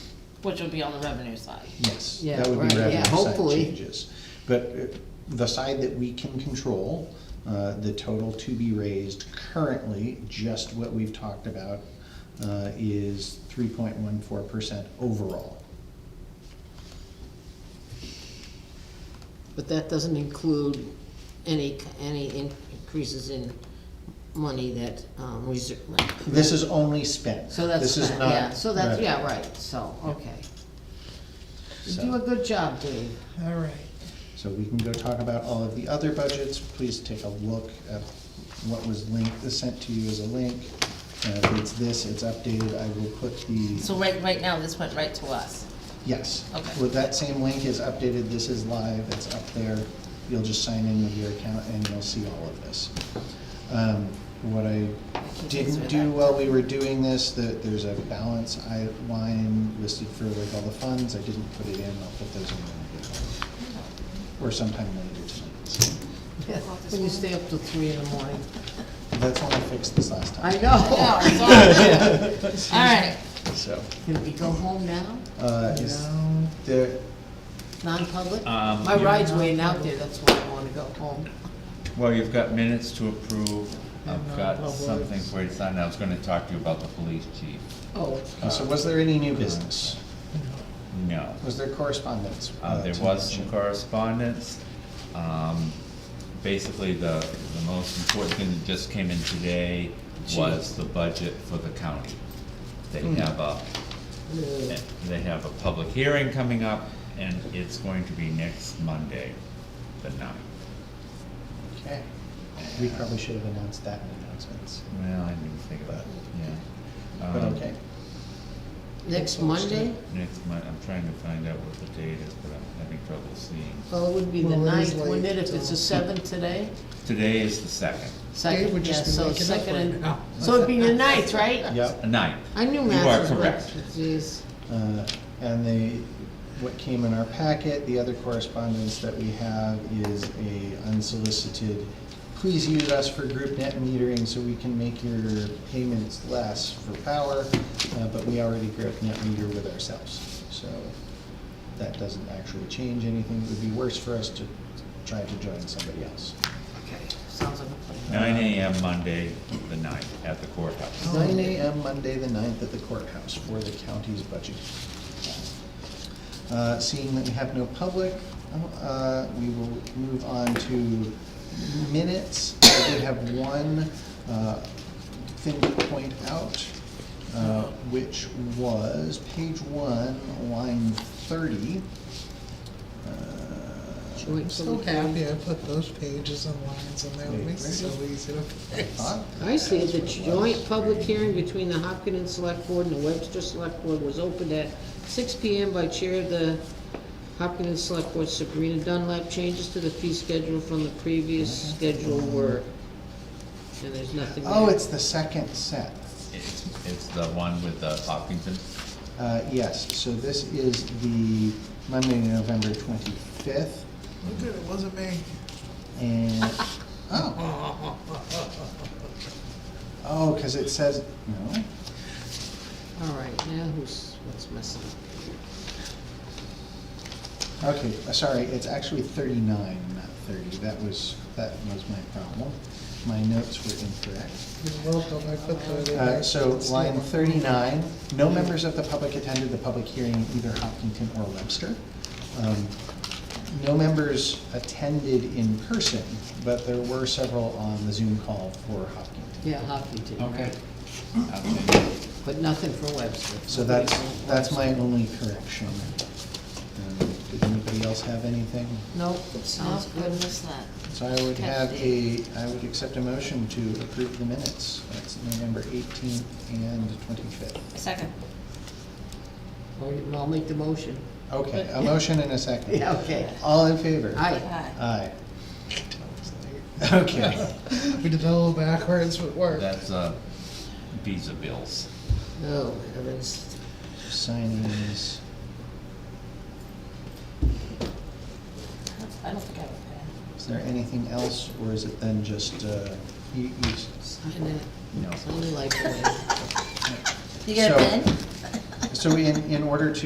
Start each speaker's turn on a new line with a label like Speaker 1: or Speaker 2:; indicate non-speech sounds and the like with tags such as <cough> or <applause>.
Speaker 1: which would be on the revenue side.
Speaker 2: Yes,
Speaker 3: Yeah,
Speaker 2: that would be
Speaker 3: right,
Speaker 2: revenue
Speaker 3: yeah,
Speaker 2: side
Speaker 3: hopefully.
Speaker 2: changes. But uh, the side that we can control, uh, the total to be raised currently, just what we've talked about, uh, is three point one four percent overall.
Speaker 3: But that doesn't include any, any increases in money that, um, reserve.
Speaker 2: This is only spent.
Speaker 3: So that's,
Speaker 2: This is
Speaker 3: fine,
Speaker 2: not
Speaker 3: yeah, so that's,
Speaker 2: revenue.
Speaker 3: yeah, right, so, okay. You
Speaker 2: So-
Speaker 3: do a good job, Dave. All right.
Speaker 2: So we can go talk about all of the other budgets. Please take a look at what was linked, sent to you as a link. Uh, if it's this, it's updated. I will put the,
Speaker 1: So right, right now, this went right to us.
Speaker 2: yes.
Speaker 1: Okay.
Speaker 2: With that same link is updated, this is live, it's up there. You'll just sign in with your account and you'll see all of this. Um, What I didn't do while we were doing this, that there's a balance I line listed for like all the funds. I didn't put it in, I'll put those in when I get home. Or sometime later tonight.
Speaker 3: When you stay up till three in the morning.
Speaker 2: That's when I fixed this last
Speaker 3: I <laughs>
Speaker 2: time.
Speaker 3: know.
Speaker 1: All right,
Speaker 2: So,
Speaker 3: Can we go home now?
Speaker 2: uh, is there,
Speaker 3: Non-public?
Speaker 4: Um,
Speaker 3: My
Speaker 4: yeah.
Speaker 3: ride's waiting out there, that's why I wanna go home.
Speaker 4: Well, you've got minutes to approve. I've
Speaker 3: And
Speaker 4: got
Speaker 3: non-public.
Speaker 4: something for you to sign. I was gonna talk to you about the police chief.
Speaker 3: Oh,
Speaker 2: so was there any new business?
Speaker 4: No.
Speaker 2: Was there correspondence?
Speaker 4: Uh, there
Speaker 2: to
Speaker 4: was some
Speaker 2: mention?
Speaker 4: correspondence. Um, basically, the, the most important thing that just came in today was the budget for the county. They
Speaker 2: Hmm.
Speaker 4: have a,
Speaker 3: yeah.
Speaker 4: they have a public hearing coming up, and it's going to be next Monday, the ninth.
Speaker 2: Okay. We probably should have announced that in announcements,
Speaker 4: Well, I didn't even think about it, yeah.
Speaker 2: but
Speaker 4: Um,
Speaker 2: okay.
Speaker 3: Next Monday?
Speaker 4: Next month, I'm trying to find out what the date is, but I'm having trouble seeing.
Speaker 3: Well, it would be the
Speaker 5: Well, it is
Speaker 3: ninth, wouldn't
Speaker 5: late,
Speaker 3: it, if it's the
Speaker 5: so-
Speaker 3: seventh today?
Speaker 4: Today is the second,
Speaker 5: Dave
Speaker 3: Second,
Speaker 5: would
Speaker 3: yeah,
Speaker 5: just be
Speaker 3: so
Speaker 5: waking up
Speaker 3: second
Speaker 5: right
Speaker 3: and,
Speaker 5: now.
Speaker 3: so it'd be the ninth, right?
Speaker 2: Yep.
Speaker 4: the ninth.
Speaker 3: I knew
Speaker 4: You
Speaker 3: math
Speaker 4: are
Speaker 3: was
Speaker 4: correct.
Speaker 3: late, jeez.
Speaker 2: Uh, And the, what came in our packet, the other correspondence that we have is a unsolicited, please use us for group net metering so we can make your payments less for power, uh, but we already group net meter with ourselves. So that doesn't actually change anything. It would be worse for us to try to join somebody else.
Speaker 3: Okay, sounds like a plan.
Speaker 4: Nine AM Monday, the ninth, at the courthouse.
Speaker 2: Nine
Speaker 3: Oh.
Speaker 2: AM, Monday the ninth, at the courthouse for the county's budget. Uh, Seeing that we have no public, uh, we will move on to minutes. I did have one uh, thing to point out, uh, which was page one, line thirty. Uh,
Speaker 3: Should we-
Speaker 5: I'm so happy I put those pages and lines in there, it makes it so easy to fix.
Speaker 2: thought
Speaker 3: I see the joint public hearing between the Hopkins Select Board and the Webster Select Board was opened at six P M by Chair of the Hopkins Select Board Sabrina Dunlap. Changes to the fee schedule from the previous schedule were, and there's nothing there.
Speaker 2: Oh, it's the second set.
Speaker 4: It's, it's the one with the Hopkinton.
Speaker 2: Uh, Yes, so this is the Monday, November twenty-fifth,
Speaker 5: Look at it, wasn't me.
Speaker 2: and, oh. Oh, because it says, no,
Speaker 3: All right, now who's, what's messing up?
Speaker 2: okay, uh, sorry, it's actually thirty-nine, not thirty, that was, that was my problem. My notes were incorrect.
Speaker 5: You're welcome, I put that in
Speaker 2: Uh,
Speaker 5: there.
Speaker 2: So
Speaker 5: It's
Speaker 2: line
Speaker 5: not-
Speaker 2: thirty-nine, no members of the public attended the public hearing in either Hopkinton or Webster. Um, No members attended in person, but there were several on the Zoom call for Hopkinton.
Speaker 3: Yeah, Hopkins, right,
Speaker 4: Okay.
Speaker 3: but nothing for Webster.
Speaker 2: So that's, that's my only correction. Um, Did anybody else have anything?
Speaker 3: Nope, sounds
Speaker 1: I
Speaker 3: good.
Speaker 1: missed Oh, that.
Speaker 2: So I would have a, I would accept a motion to approve the minutes. That's November eighteenth and twenty-fifth.
Speaker 1: Second.
Speaker 3: Well, I'll make the motion.
Speaker 2: Okay, a motion and a second.
Speaker 3: Yeah, <laughs> okay.
Speaker 2: All in favor?
Speaker 3: Aye.
Speaker 1: Aye.
Speaker 2: Aye. <laughs> Okay.
Speaker 5: We did it <laughs> a little backwards, but it worked.
Speaker 4: That's, uh, visa bills.
Speaker 3: Oh, heavens.
Speaker 2: Signing is,
Speaker 1: I don't think I have a pen.
Speaker 2: is there anything else, or is it then just, uh, e, you, you, s-
Speaker 3: Sign it,
Speaker 4: No.
Speaker 3: sign the life away.
Speaker 1: You got
Speaker 2: So-
Speaker 1: a pen?
Speaker 2: so in, in order to